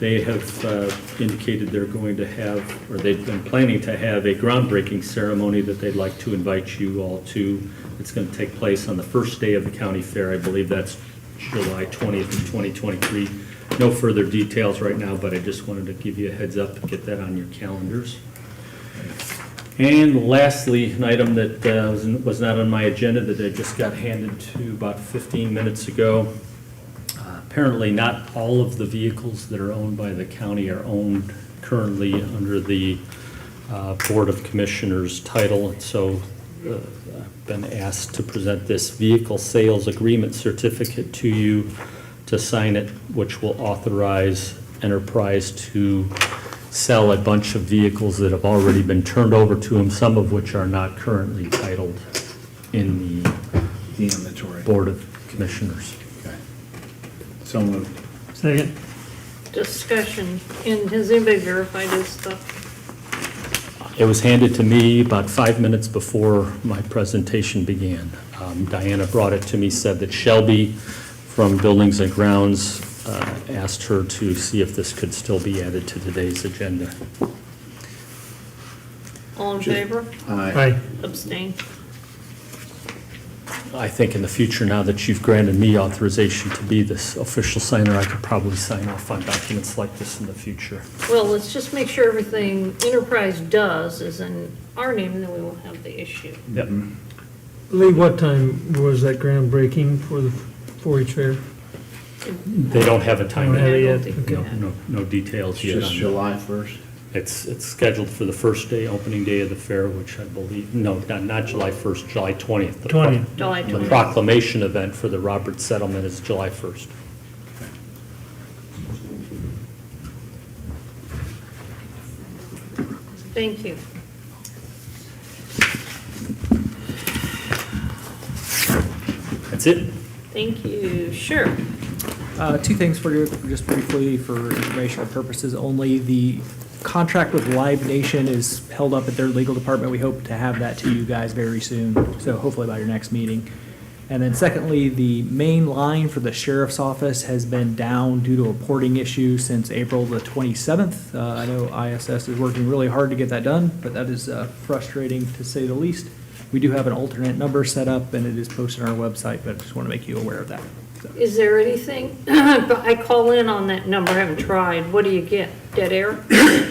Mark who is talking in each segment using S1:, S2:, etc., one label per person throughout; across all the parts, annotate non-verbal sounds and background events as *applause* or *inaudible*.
S1: They have uh, indicated they're going to have, or they've been planning to have a groundbreaking ceremony that they'd like to invite you all to. It's going to take place on the first day of the county fair. I believe that's July 20th of 2023. No further details right now, but I just wanted to give you a heads up and get that on your calendars. And lastly, an item that uh, was- was not on my agenda that I just got handed to about 15 minutes ago. Uh, Apparently, not all of the vehicles that are owned by the county are owned currently under the uh, Board of Commissioners title, and so uh, I've been asked to present this vehicle sales agreement certificate to you to sign it, which will authorize Enterprise to sell a bunch of vehicles that have already been turned over to them, some of which are not currently titled in the
S2: The inventory.
S1: Board of Commissioners.
S2: Okay. So moved.
S3: Second.
S4: discussion, and has anybody verified this stuff?
S1: It was handed to me about five minutes before my presentation began. Um, Diana brought it to me, said that Shelby from Buildings and Grounds uh, asked her to see if this could still be added to today's agenda.
S4: All in
S2: Sure.
S4: favor?
S2: Aye.
S3: Aye.
S4: Abstain.
S1: I think in the future, now that you've granted me authorization to be this official signer, I could probably sign off on documents like this in the future.
S4: Well, let's just make sure everything Enterprise does is in our name, then we won't have the issue.
S1: Yep.
S3: Lee, what time was that groundbreaking for the 4-H fair?
S1: They don't have a time,
S3: Don't have
S1: no,
S3: it yet.
S1: no, no details
S2: It's
S1: yet
S2: just
S1: on that.
S2: July 1st.
S1: It's, it's scheduled for the first day, opening day of the fair, which I believe, no, not, not July 1st, July 20th. The pro-
S3: 20th.
S4: July
S1: The
S4: 20th.
S1: proclamation event for the Roberts settlement is July 1st.
S4: Thank you.
S1: That's it.
S4: Thank you. Sure.
S5: Uh, Two things for you, just briefly, for informational purposes only. The contract with Live Nation is held up at their legal department. We hope to have that to you guys very soon, so hopefully by your next meeting. And then secondly, the main line for the sheriff's office has been down due to a porting issue since April the 27th. Uh, I know ISS is working really hard to get that done, but that is uh, frustrating to say the least. We do have an alternate number set up, and it is posted on our website, but I just want to make you aware of that. so.
S4: Is there anything, *coughs* but I call in on that number, I haven't tried. What do you get? Dead air?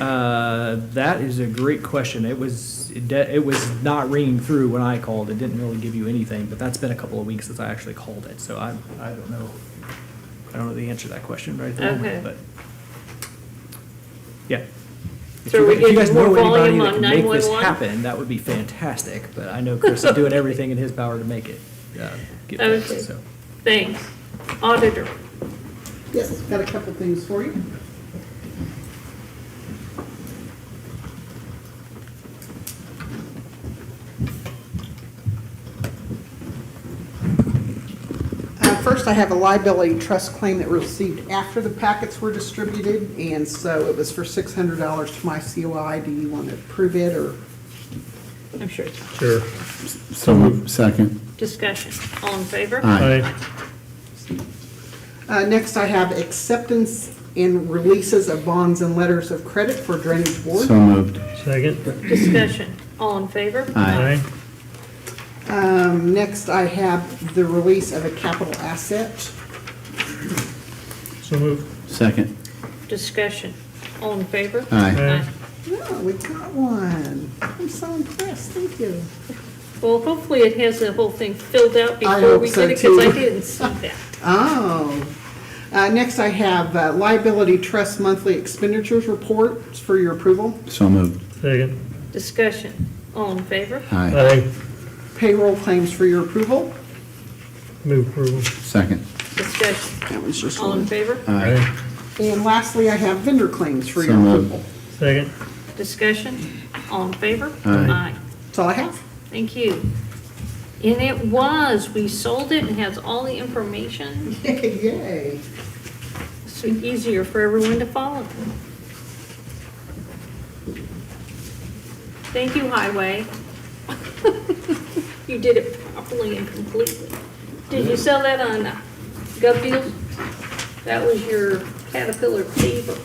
S5: Uh, That is a great question. It was, it de- it was not ringing through when I called. It didn't really give you anything, but that's been a couple of weeks since I actually called it, so I, I don't know. I don't know the answer to that question right there,
S4: Okay.
S5: but. Yeah. If
S4: So are
S5: you-
S4: we
S5: if you guys
S4: getting more
S5: know anybody
S4: volume
S5: that
S4: on
S5: can make this
S4: 911?
S5: Happen, that would be fantastic, but I know Chris is doing everything in his power to make it, uh, get
S4: Okay.
S5: fixed, so.
S4: Thanks. Auditor.
S6: Yes, got a couple things for you. Uh, First, I have a liability trust claim that received after the packets were distributed, and so it was for $600 to my COI. Do you want to approve it, or?
S4: I'm sure it's
S3: Sure.
S2: So moved. Second.
S4: discussion. All in favor?
S3: Aye.
S6: Uh, Next, I have acceptance and releases of bonds and letters of credit for Drainage Board.
S2: moved.
S3: Second.
S4: Discussion. All in favor?
S3: Aye.
S6: Um, Next, I have the release of a capital asset.
S3: So moved.
S2: Second.
S4: Discussion. All in favor?
S3: Aye.
S6: Oh, we got one. I'm so impressed, thank you.
S4: Well, hopefully it has the whole thing filled out
S6: I
S4: before
S6: hope
S4: we
S6: so,
S4: get it, because I
S6: too.
S4: didn't see that.
S6: Oh. Uh, Next, I have uh, liability trust monthly expenditures report for your approval.
S2: So moved.
S3: Second.
S4: Discussion. All in favor?
S2: Aye.
S3: Aye.
S6: Payroll claims for your approval.
S3: Move approval.
S2: Second.
S4: Discussion.
S6: That was just
S4: All in
S6: one.
S4: favor?
S3: Aye.
S6: And lastly, I have vendor claims for your
S2: So moved.
S6: approval.
S3: Second.
S4: Discussion. All in favor?
S2: Aye.
S6: That's all I have. *laughs*
S4: Thank you. And it was, we sold it and has all the information,
S6: Yay.
S4: so easier for everyone to follow. Thank you, Highway. *laughs* You did it properly and completely. Did you sell that on Gov Deals? That was your Caterpillar fever.